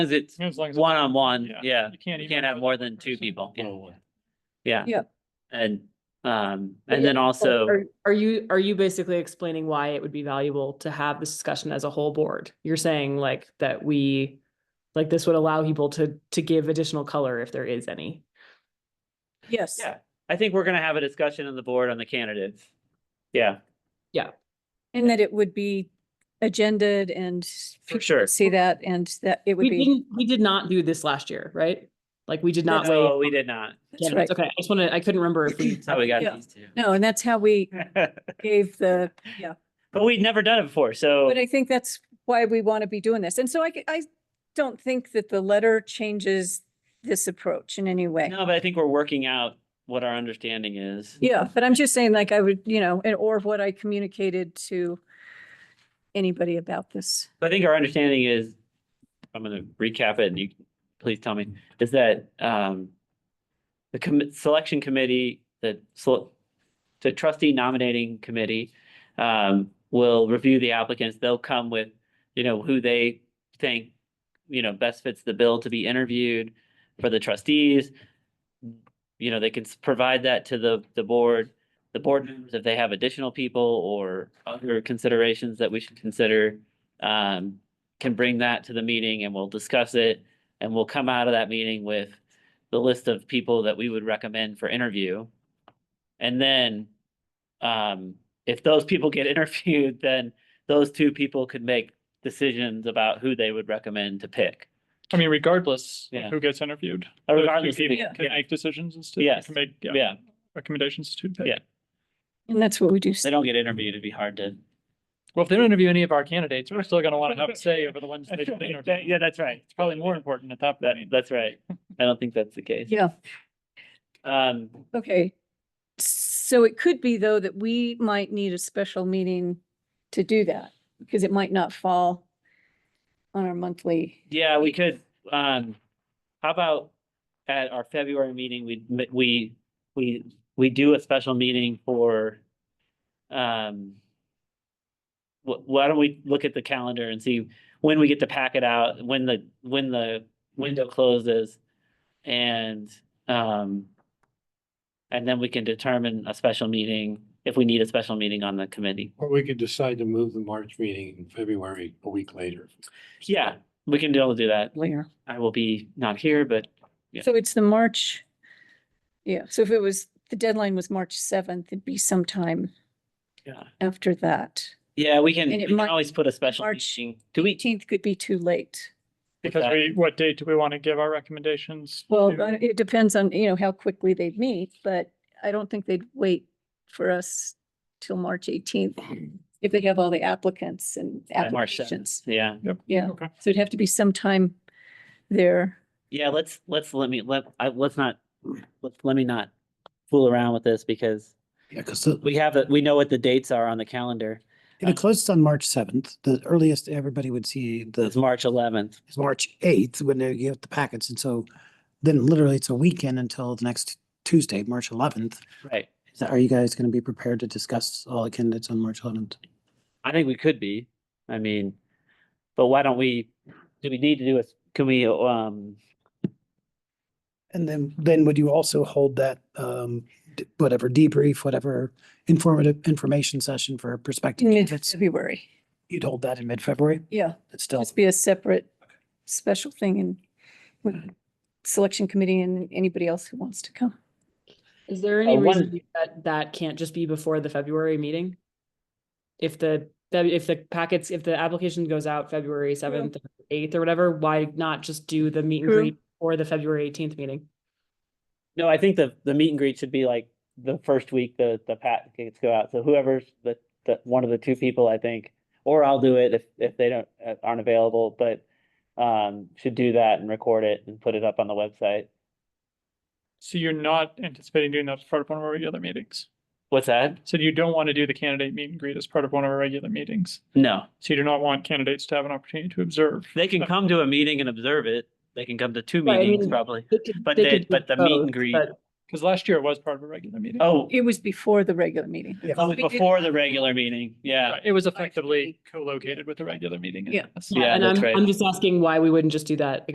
Cause it's As long as. one on one, Yeah. yeah, can't you even can't have go more with than one two person. people, yeah. Probably. yeah. Yeah. And, um, But and yeah, then also, Are- Are you, are you basically explaining why it would be valuable to have this discussion as a whole board? You're saying like that we, like this would allow people to, to give additional color if there is any. Yes. Yeah. I think we're gonna have a discussion on the board on the candidates. Yeah, And that it would be agended and for sure. see that and that it would We be. didn't, we did not do this last year, right? Like we did not wait. No, we did not. That's right. Okay, I just wanted, I couldn't remember if we. That's how we got Yeah. these two. No, and that's how we But gave the, yeah. we'd never done it before, so But I think that's why we want to be doing this. And so I, c- I don't think that the letter changes this approach in any way. no, but I think we're working out what our understanding is. Yeah, but I'm just saying like I would, you know, and or what I communicated to anybody about this. I think our understanding is, I'm gonna recap it and you, please tell me, is that, um, the commit, selection committee, the, sel- the trustee nominating committee, um, will review the applicants. They'll come with, you know, who they think, you know, best fits the bill to be interviewed for the trustees. You know, they can s- provide that to the, the board, the board members, if they have additional people or other considerations that we should consider um, can bring that to the meeting and we'll discuss it. And we'll come out of that meeting with the list of people that we would recommend for interview. And then, um, if those people get interviewed, then those two people could make decisions about who they would recommend to pick. I mean, regardless Yeah. of who gets interviewed. Uh, those two regardless of people who- Can yeah. make decisions as to. Yes. Can make, yeah, Yeah, recommendations to. pick. Yeah. And that's what we do. if they don't get interviewed, it'd be hard to. Well, if they don't interview any of our candidates, we're still gonna want to have a say over the ones that they don't interview. Yeah, that's right. It's probably more important at that That, point. that's right. I don't think that's the case. Yeah. Um, Okay. So it could be though that we might need a special meeting to do that because it might not fall on our monthly. Yeah, we could, um, how about at our February meeting, we, m- we, we, we do a special meeting for, um, wh- why don't we look at the calendar and see when we get to pack it out, when the, when the window closes? And, um, and then we can determine a special meeting, if we need a special meeting on the committee. Or we could decide to move the March meeting in February a week later. Yeah, we can all do that. Later. I will be not here, but Yeah. So it's the March. Yeah, so if it was, the deadline was March seventh, it'd be sometime yeah. after that. Yeah, we can, And we it can might- always put a special March meeting. Do we, Eighteenth could be too late. Because that- we, what date do we want to give our recommendations? Well, to? I- it depends on, you know, how quickly they meet, but I don't think they'd wait for us till March eighteenth if they have all the applicants and Yeah, March seventh, applications. yeah, Yeah, Okay. so it'd have to be sometime there. yeah, let's, let's, let me, let, I, let's not, let, let me not fool around with this because Yeah, because it we have, the- we know what the dates are on the calendar. it closes on March seventh. The earliest everybody would see the It's March eleventh. is March eighth when they get the packets. And so then literally it's a weekend until the next Tuesday, March eleventh. Right. Are you guys going to be prepared to discuss all the candidates on March eleventh? I think we could be, I mean, but why don't we, do we need to do a, can we, um, And then then would you also hold that um d- whatever debrief, whatever informative information session for prospective candidates? Mid-February, You'd hold that in mid-February? yeah, It's still just be a separate special thing and with selection committee and anybody else who wants to come. Is there Uh, any one- reason that that can't just be before the February meeting? If the, that- if the packets, if the application goes out February seventh, eighth or whatever, why not just do the meet and True. greet or the February eighteenth meeting? no, I think the, the meet and greet should be like the first week the, the packets go out. So whoever's the, the, one of the two people, I think, or I'll do it if, if they don't, uh, aren't available, but um, should do that and record it and put it up on the website. So you're not anticipating doing that as part of one of our regular meetings? What's that? So you don't want to do the candidate meet and greet as part of one of our regular meetings? No, So you do not want candidates to have an opportunity to observe? they can come to a meeting and observe it. They can come to two Right, I meetings mean- probably. They could- But they the- could do but the meet and both, greet- but Because last year it was part of a regular meeting. Oh, It was before the regular meeting. it's always we did- before the regular meeting. Yeah. Right, It was effectively co-located with the regular meeting. Yeah. Yes. Yeah, And that's I'm, right. I'm just asking why we wouldn't just do that